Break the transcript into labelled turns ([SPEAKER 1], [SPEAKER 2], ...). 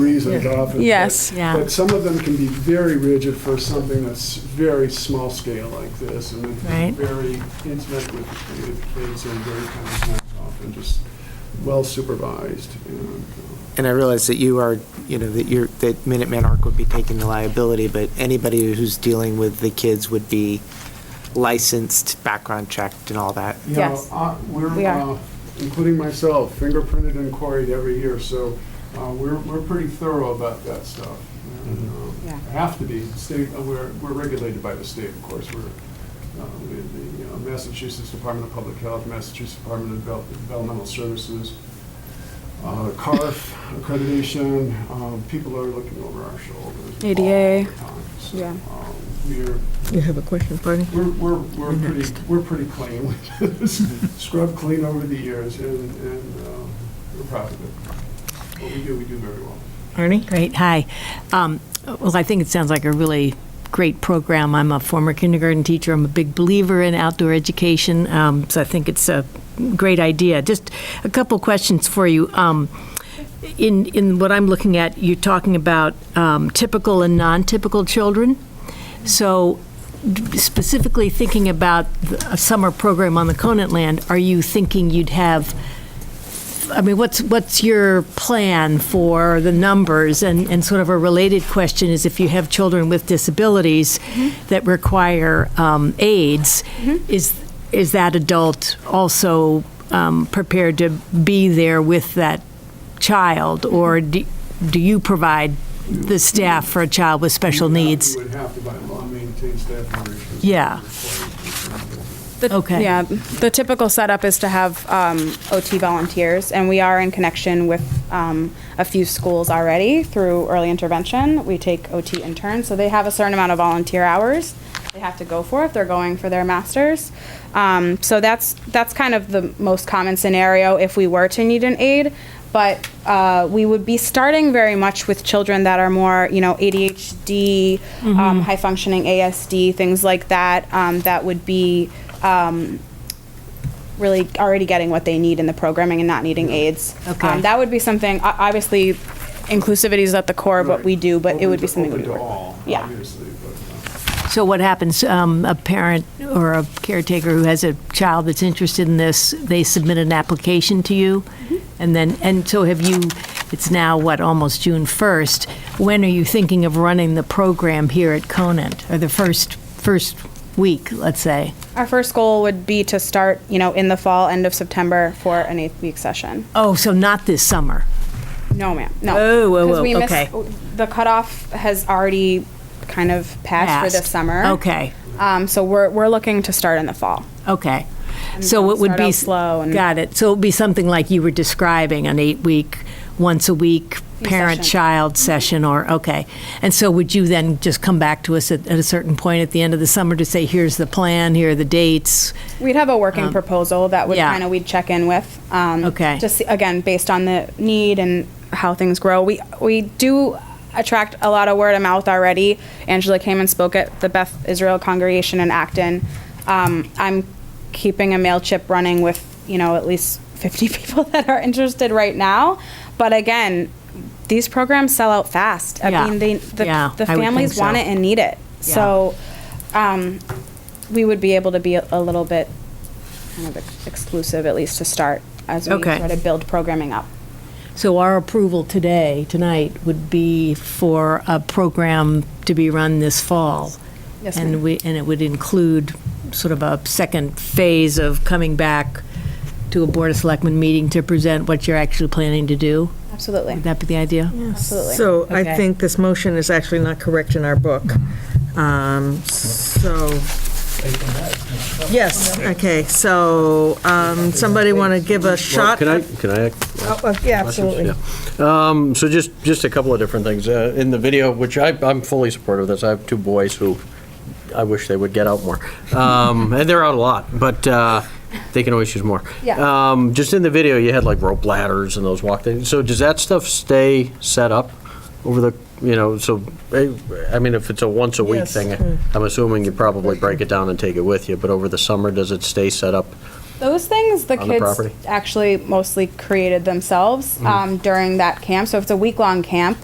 [SPEAKER 1] these in golf. and-
[SPEAKER 2] Yes.
[SPEAKER 3] Yeah.
[SPEAKER 1] But some of them can be very rigid for something that's very small scale like this, and then
[SPEAKER 3] Right.
[SPEAKER 1] very intimate with with kids and very kind of hands off and just well supervised. and, uh,
[SPEAKER 4] And I realize that you are, you know, that you're, that Minuteman Arc would be taking the liability, but anybody who's dealing with the kids would be licensed, background checked and all that.
[SPEAKER 1] you know,
[SPEAKER 2] Yes.
[SPEAKER 1] uh,
[SPEAKER 2] We
[SPEAKER 1] We're,
[SPEAKER 2] are.
[SPEAKER 1] uh, including myself, fingerprinted and quarried every year, so uh, we're, we're pretty thorough about that stuff. and, uh,
[SPEAKER 2] Yeah.
[SPEAKER 1] Have to be, state, uh, we're, we're regulated by the state, of course, we're, uh, we- the uh, Massachusetts Department of Public Health, Massachusetts Department of Devel- Developmental Services, uh, CARF accreditation, um, people are looking over our shoulders. all
[SPEAKER 2] ADA.
[SPEAKER 1] the time, so,
[SPEAKER 2] Yeah.
[SPEAKER 1] um, We're,
[SPEAKER 5] You have a question, Barney?
[SPEAKER 1] we're, we're, we're pretty, we're pretty clean. Scrub clean over the years, and, and uh, we're proud of it. What we do, we do very well.
[SPEAKER 5] Arnie?
[SPEAKER 3] Great, hi. Um, Well, I think it sounds like a really great program. I'm a former kindergarten teacher, I'm a big believer in outdoor education, um, so I think it's a great idea. Just a couple questions for you. Um, In, in what I'm looking at, you're talking about um, typical and non-typical children. So d- specifically thinking about the- a summer program on the Conant land, are you thinking you'd have I mean, what's, what's your plan for the numbers? And, and sort of a related question is if you have children with disabilities that require um, aids, is, is that adult also um, prepared to be there with that child? Or do, do you provide the staff for a child with special
[SPEAKER 1] We would have-
[SPEAKER 3] needs?
[SPEAKER 1] We would have to by law maintain staff ratios.
[SPEAKER 3] Yeah.
[SPEAKER 2] The-
[SPEAKER 3] Okay.
[SPEAKER 2] Yeah, the typical setup is to have um, OT volunteers, and we are in connection with um, a few schools already through early intervention. We take OT interns, so they have a certain amount of volunteer hours they have to go for if they're going for their masters. Um, so that's that's kind of the most common scenario if we were to need an aid. But uh, we would be starting very much with children that are more, you know, ADHD, um, high functioning ASD, things like that, um, that would be really already getting what they need in the programming and not needing aids.
[SPEAKER 3] Okay.
[SPEAKER 2] Um, that would be something, o- obviously, inclusivity is at the core of what we do, but it would be something we
[SPEAKER 1] Open
[SPEAKER 2] would
[SPEAKER 1] to
[SPEAKER 2] work with.
[SPEAKER 1] all,
[SPEAKER 2] Yeah.
[SPEAKER 1] obviously, but, uh,
[SPEAKER 3] So what happens, um, a parent or a caretaker who has a child that's interested in this, they submit an application to you? And then, and so have you, it's now, what, almost June 1st? When are you thinking of running the program here at Conant? Or the first, first week, let's say?
[SPEAKER 2] Our first goal would be to start, you know, in the fall, end of September for an eighth week session.
[SPEAKER 3] Oh, so not this summer?
[SPEAKER 2] No, ma'am, no.
[SPEAKER 3] Oh, whoa,
[SPEAKER 2] 'Cause
[SPEAKER 3] whoa,
[SPEAKER 2] we missed-
[SPEAKER 3] okay.
[SPEAKER 2] The cutoff has already kind of passed for this
[SPEAKER 3] Passed.
[SPEAKER 2] summer.
[SPEAKER 3] Okay,
[SPEAKER 2] Um, so we're, we're looking to start in the fall.
[SPEAKER 3] okay. So it would
[SPEAKER 2] start
[SPEAKER 3] be.
[SPEAKER 2] out slow and-
[SPEAKER 3] Got it. So it would be something like you were describing, an eight-week, once-a-week
[SPEAKER 2] sessions.
[SPEAKER 3] parent-child session, or, okay. And so would you then just come back to us at, at a certain point at the end of the summer to say, here's the plan, here are the dates?
[SPEAKER 2] We'd have a working proposal that would
[SPEAKER 3] Um, yeah.
[SPEAKER 2] kind of we'd check in with. Um,
[SPEAKER 3] Okay.
[SPEAKER 2] Just see- again based on the need and how things grow. We we do attract a lot of word of mouth already. Angela came and spoke at the Beth Israel congregation in Acton. Um, I'm keeping a mail chip running with you know at least 50 people that are interested right now. But again, these programs sell out fast. I
[SPEAKER 3] Yeah.
[SPEAKER 2] mean, they, the, the
[SPEAKER 3] Yeah, I would think
[SPEAKER 2] families want
[SPEAKER 3] so.
[SPEAKER 2] it and need it.
[SPEAKER 3] Yeah.
[SPEAKER 2] So. Um, we would be able to be a a little bit kind of ex- exclusive, at least to start, as we
[SPEAKER 3] Okay.
[SPEAKER 2] try to build programming up.
[SPEAKER 3] So our approval today, tonight, would be for a program to be run this fall?
[SPEAKER 2] Yes,
[SPEAKER 3] And
[SPEAKER 2] ma'am.
[SPEAKER 3] we, and it would include sort of a second phase of coming back to a Board of Selectmen meeting to present what you're actually planning to do?
[SPEAKER 2] Absolutely.
[SPEAKER 3] Would that be the idea?
[SPEAKER 2] Absolutely.
[SPEAKER 5] So I
[SPEAKER 3] Okay.
[SPEAKER 5] think this motion is actually not correct in our book. Um, So, yes, okay, so um, somebody want to give a
[SPEAKER 6] Well,
[SPEAKER 5] shot?
[SPEAKER 6] Can I, can I? ask
[SPEAKER 5] Oh, uh, Yeah, absolutely.
[SPEAKER 6] questions? Yeah. Um, So just, just a couple of different things. Uh, In the video, which I, I'm fully supportive of this, I have two boys who I wish they would get out more. Um, And they're out a lot, but uh, they can always use more.
[SPEAKER 2] Yeah.
[SPEAKER 6] Um, Just in the video, you had like rope ladders and those walk things. So does that stuff stay set up over the, you know, so, eh, I mean, if it's a once a week
[SPEAKER 5] Yes. Hmm.
[SPEAKER 6] thing, I'm assuming you probably break it down and take it with you, but over the summer, does it stay set up?
[SPEAKER 2] Those things, the
[SPEAKER 6] On the
[SPEAKER 2] kids
[SPEAKER 6] property. Mm-hmm.
[SPEAKER 2] actually mostly created themselves um, during that camp. So if it's a week-long camp,